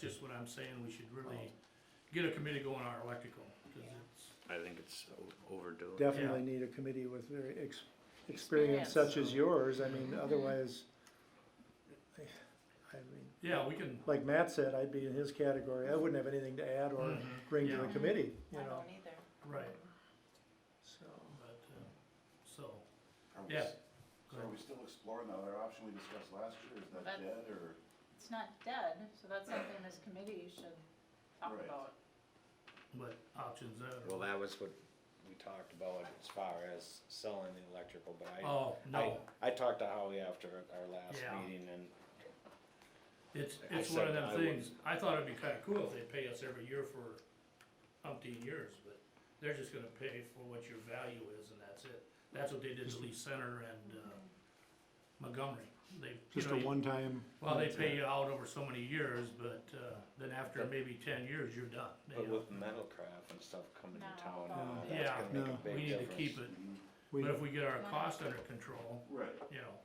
Just what I'm saying, we should Oh. really get a committee going on our electrical, cause it's, I think it's o- overdue. Definitely need a committee with very ex- experience such as yours, I mean, Mm-hmm. otherwise, I I mean, yeah, we can, like Matt said, I'd be in his category, I wouldn't have anything to add or Mhm. bring to the Yeah. committee, you Mm-hmm. I know, don't either. right, so. but, uh, so, Are we yeah. s- So are we still exploring the other option we discussed last year, is that That's- dead, or, It's not dead, so that's something this committee should talk Right. about. But options Well, there, that was what we talked about as far as selling the electrical, but I. oh, no, I, I talked to Howie after our last Yeah. meeting and it's, I it's one of said them I things, I thought it'd be kinda cool if they pay us every year for umpteen years, but they're just gonna pay for what your value is and that's it. That's what they did to Lee Center and, uh, Montgomery, they, you know, you- one-time. Well, they pay you out over so many years, but, uh, then after maybe ten years, you're done. you But know. with metalcraft and stuff coming No. to town, No. that's Oh, Yeah, gonna make no. a big We need to difference. keep it, We, but if we get our cost under control, right, you know,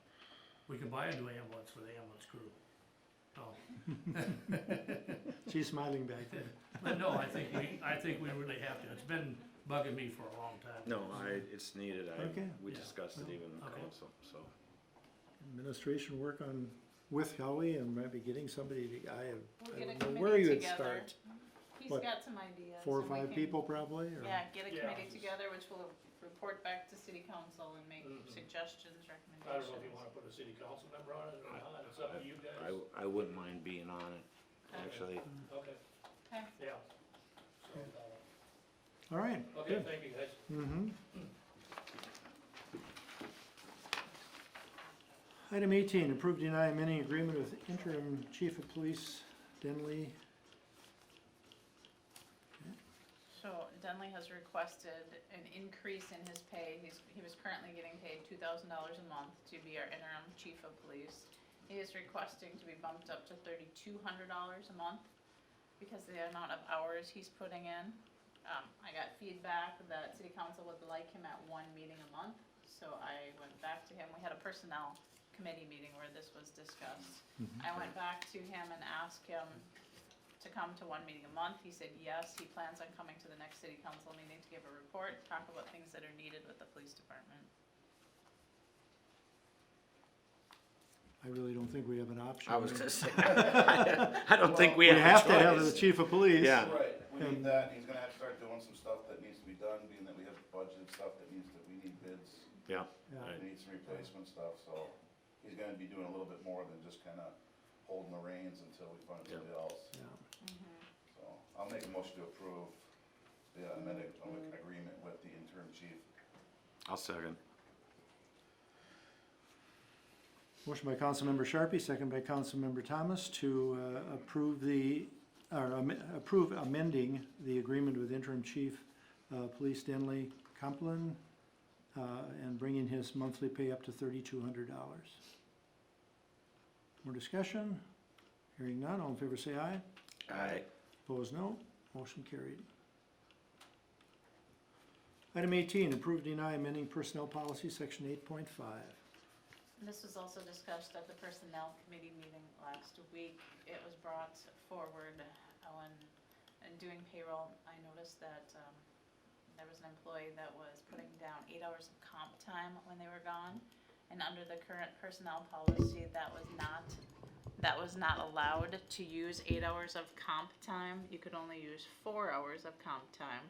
we can buy a new ambulance for the ambulance crew. No, she's smiling back there. but no, I think we, I think we really have to, it's been bugging me for a long time. No, I, it's needed, I, Okay. we Yeah. discussed it even in Okay. council, so. Administration work on, with Howie and maybe getting somebody, to- I, We'll I get a don't know where you committee would together. start. He's What, got some ideas. Four or and we five can- people probably, or? Yeah, get a Yeah. committee together, which will report back to city council and make Mhm. suggestions, I don't know if you recommendations. wanna put a city council member on it or not, it's up to you I, guys. I wouldn't mind being on it, actually. Okay, Okay, yeah. All right, So, Okay, thank you guys. Mm-hmm. Item eighteen, approve deny amending agreement with interim chief of police Denley. so Dunley has requested an increase in his pay. He's, he was currently getting paid two thousand dollars a month to be our interim chief of police. He is requesting to be bumped up to thirty-two hundred dollars a month because of the amount of hours he's putting in. Um, I got feedback that city council would like him at one meeting a month, so I went back to him. We had a personnel committee meeting where this was discussed. I went back to him and asked him to come to one meeting a month. He said yes, he plans on coming to the next city council meeting to give a report, talk about things that are needed with the police department. I really don't think we have an option. I was gonna say, I don't think we have a to have choice. the chief of police. Yeah. right, we And- need that, he's gonna have to start doing some stuff that needs to be done, being that we have budgeted stuff that needs to, we need bids, Yeah, Yeah. Right. we need some replacement stuff, so he's gonna be doing a little bit more than just kinda holding the reins until we find Yeah. somebody else, Yeah. so, I'll make a motion to approve the uh, amended um, agreement with the interim chief. I'll second. Motion by Councilmember Sharpie, second by Councilmember Thomas to uh, approve the, or am- approve amending the agreement with interim chief, uh, Police Denley Complin, uh, and bringing his monthly pay up to thirty-two hundred dollars. More discussion? Hearing none, all in favor say aye. Aye. Opposed, no. Motion carried. Item eighteen, approve deny amending personnel policy, section eight point five. And This was also discussed at the personnel committee meeting last week. It was brought forward, Ellen, in doing payroll, I noticed that, um, there was an employee that was putting down eight hours of comp time when they were gone. And under the current personnel policy, that was not, that was not allowed to use eight hours of comp time. You could only use four hours of comp time.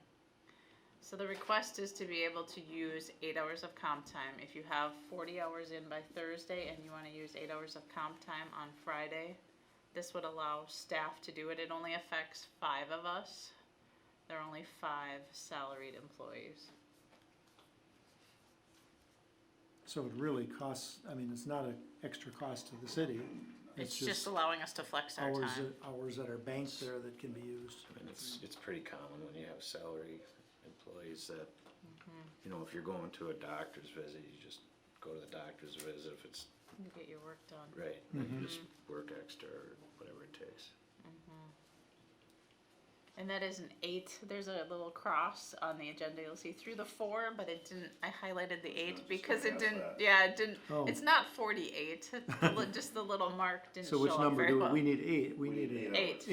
So the request is to be able to use eight hours of comp time. If you have forty hours in by Thursday and you wanna use eight hours of comp time on Friday, this would allow staff to do it. It only affects five of us. There are only five salaried employees. So it really costs, I mean, it's not an extra cost to the city. It's just allowing us to flex our Hours, time. that- hours that are banked there that can be used. And it's, it's pretty common when you have salary employees that, you know, if you're going to a doctor's visit, you just go to the doctor's visit if it's You Get your work done. right, then you just work extra or whatever it takes. And that is an eight. There's a little cross on the agenda. You'll see through the four, but it didn't. I highlighted the I was eight just because it gonna ask didn't. that. Yeah, it didn't. Oh. It's not forty-eight. It's li- just the little mark didn't So show which up number very do, well. we need eight, we We need need eight. Eight.